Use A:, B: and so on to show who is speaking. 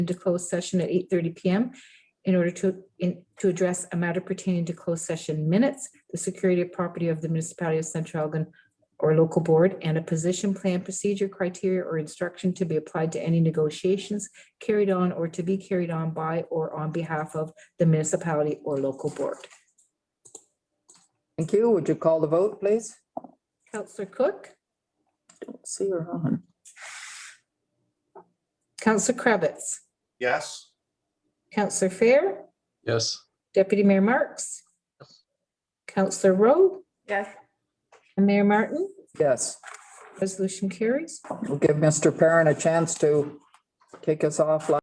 A: into closed session at eight thirty PM in order to, in, to address a matter pertaining to closed session minutes, the security of property of the municipality of Central Elgin or local board, and a position plan procedure criteria or instruction to be applied to any negotiations carried on or to be carried on by or on behalf of the municipality or local board.
B: Thank you. Would you call the vote, please?
A: Counselor Cook,
B: Don't See her on.
A: Counselor Krebitz,
C: Yes.
A: Counselor Fair,
D: Yes.
A: Deputy Mayor Marks, Counselor Rowe,
E: Yes.
A: and Mayor Martin.
B: Yes,
A: Resolution carries.
B: we'll give Mr. Perrin a chance to kick us off like